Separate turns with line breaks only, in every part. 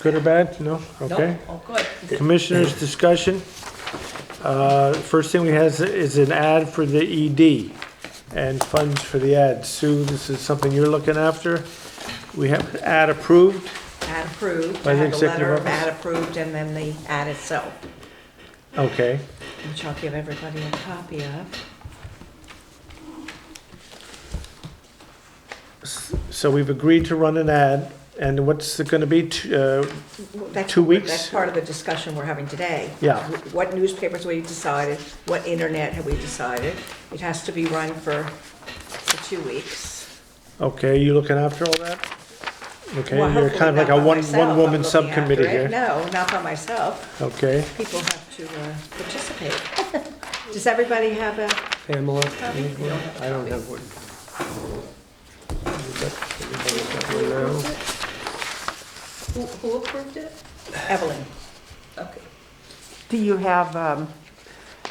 Good or bad? No? Okay.
Nope,
Oh,
all good.
Commissioners' discussion. Uh, First thing we have is an ad for the ED and funds for the ad. Sue, this is something you're looking after. We have an ad approved.
ad approved,
By
I
the
had a
executive
letter of
office?
ad approved, and then the ad itself,
Okay.
which I'll give everybody a copy of.
So we've agreed to run an ad, and what's it going to be? T- uh,
That's-
Two weeks?
That's part of the discussion we're having today.
Yeah.
What newspapers we decided, what internet have we decided? It has to be run for, for two weeks.
Okay, you looking after all that? Okay,
Well,
you're
hopefully
kind of like a
not by
one,
myself, I'm
one-woman
looking after
subcommittee
it.
here.
No, not by myself.
Okay.
People have to uh, participate. Does everybody have a
Pamela?
copy? You don't have a
I don't
copy.
have one. Everybody got one now?
Who, who approved it?
Evelyn,
Okay.
Do you have um,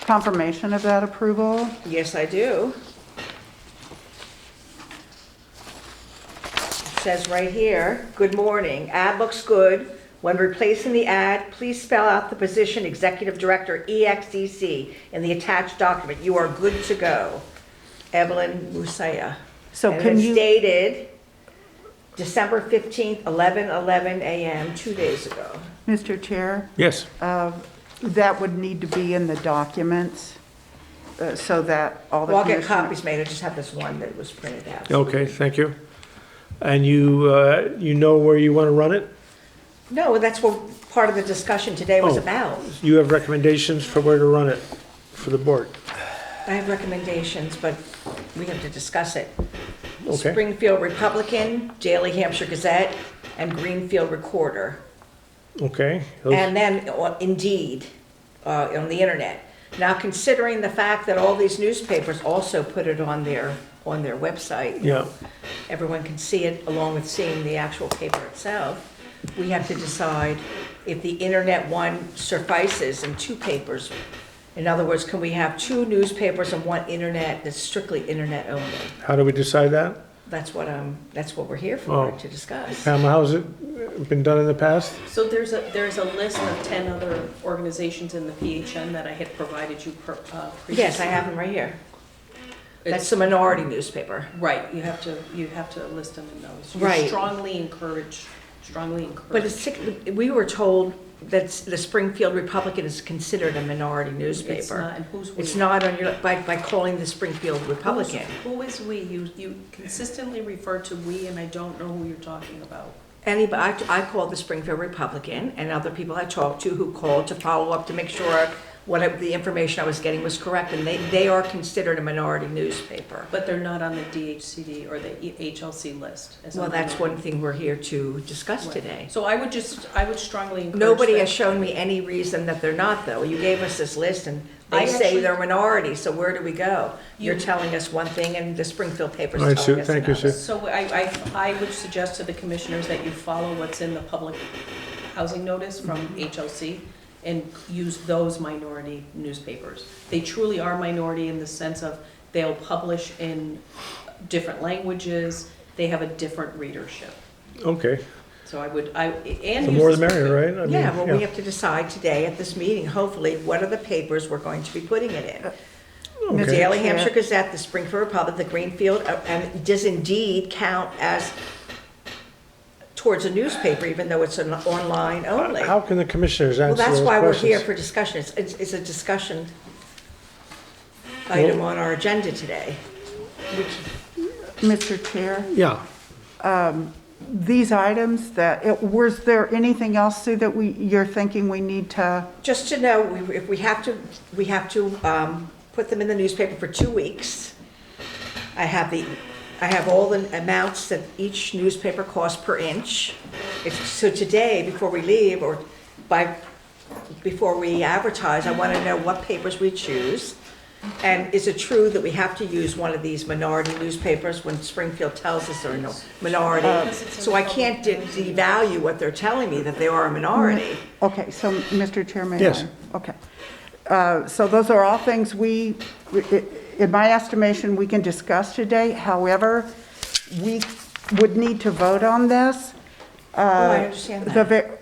confirmation of that approval?
yes, I do. It Says right here, good morning, ad looks good. When replacing the ad, please spell out the position Executive Director, E EXDC, in the attached document. You are good to go. Evelyn Musaya.
So
And
can
it's
you-
dated December 15th, 11:11 a.m., two days ago.
Mr. Chair,
Yes.
uh, that would need to be in the documents uh, so that all the
Well, I'll get
commissioners-
copies made, I just have this one that was printed out.
Okay, thank you. And you, uh, you know where you want to run it?
No, that's what part of the discussion today was
Oh.
about.
You have recommendations for where to run it for the board?
I have recommendations, but we have to discuss it.
Okay,
Springfield Republican, Daily Hampshire Gazette, and Greenfield Recorder.
okay.
And then uh, Indeed, uh, on the internet. Now, considering the fact that all these newspapers also put it on their, on their website.
Yeah,
everyone can see it along with seeing the actual paper itself, we have to decide if the internet one suffices and two papers. In other words, can we have two newspapers and one internet that's strictly internet only?
how do we decide that?
That's what, um, that's what we're here for,
Oh.
to discuss.
Pam, how's it been done in the past?
So there's a, there's a list of 10 other organizations in the PHN that I had provided you per- uh, previously.
Yes, I have them right here. That's
It's-
the minority newspaper.
Right, you have to, you have to list them in those. You
Right.
Strongly encourage, strongly
But it's,
encourage.
sick- we were told that the Springfield Republican is considered a minority newspaper.
not, and who's we?
It's not on your, by, by calling the Springfield
Who's-
Republican.
Who is "we"? You, you consistently refer to "we," and I don't know who you're talking about.
anybody, I I called the Springfield Republican and other people I talked to who called to follow up to make sure what I- the information I was getting was correct, and they, they are considered a minority newspaper.
But they're not on the DHCD or the E- HLC list. as
Well,
I'm
that's
aware.
one thing we're here to discuss
Right.
today.
So I would just, I would strongly encourage.
Nobody
that.
has shown me any reason that they're not, though. You gave us this list, and they
I
say
actually-
they're minority, so where do we go? You're
You-
telling us one thing, and the Springfield paper's
All right,
telling
Sue,
us
thank you,
another.
Sue.
So I, I, I would suggest to the commissioners that you follow what's in the public housing notice from
Mm-hmm.
HLC and use those minority newspapers. They truly are minority in the sense of they'll publish in different languages, they have a different readership.
Okay,
So I would, I, and.
the
use
more the
this-
merrier, right? I mean,
Yeah, well, we have to decide today at this meeting, hopefully, what are the papers we're going to be putting it
Uh,
in? The
Okay.
Daily
Chair.
Hampshire Gazette, the Springfield Republic, the Greenfield, uh, and does indeed count as towards a newspaper, even though it's an online only.
Uh, How can the commissioners
Well,
answer
that's
those
why we're here
questions?
for discussion. It's- It's, it's a discussion item on our agenda today.
Mr. Chair,
Yeah,
these items that, it- was there anything else, Sue, that we, you're thinking we need to?
Just to know, we- if we have to, we have to um, put them in the newspaper for two weeks. I have the, I have all the amounts that each newspaper costs per inch. If- So today, before we leave, or by, before we advertise, I want to know what papers we choose. And is it true that we have to use one of these minority newspapers when Springfield tells us they're no minority? So I can't de- devalue what they're telling me, that they are a minority.
Okay, so, Mr. Chair, may I?
Yes.
Okay. Uh, So those are all things we, i- in my estimation, we can discuss today. However, we would need to vote on this um,
Oh, I understand that.
The, ve-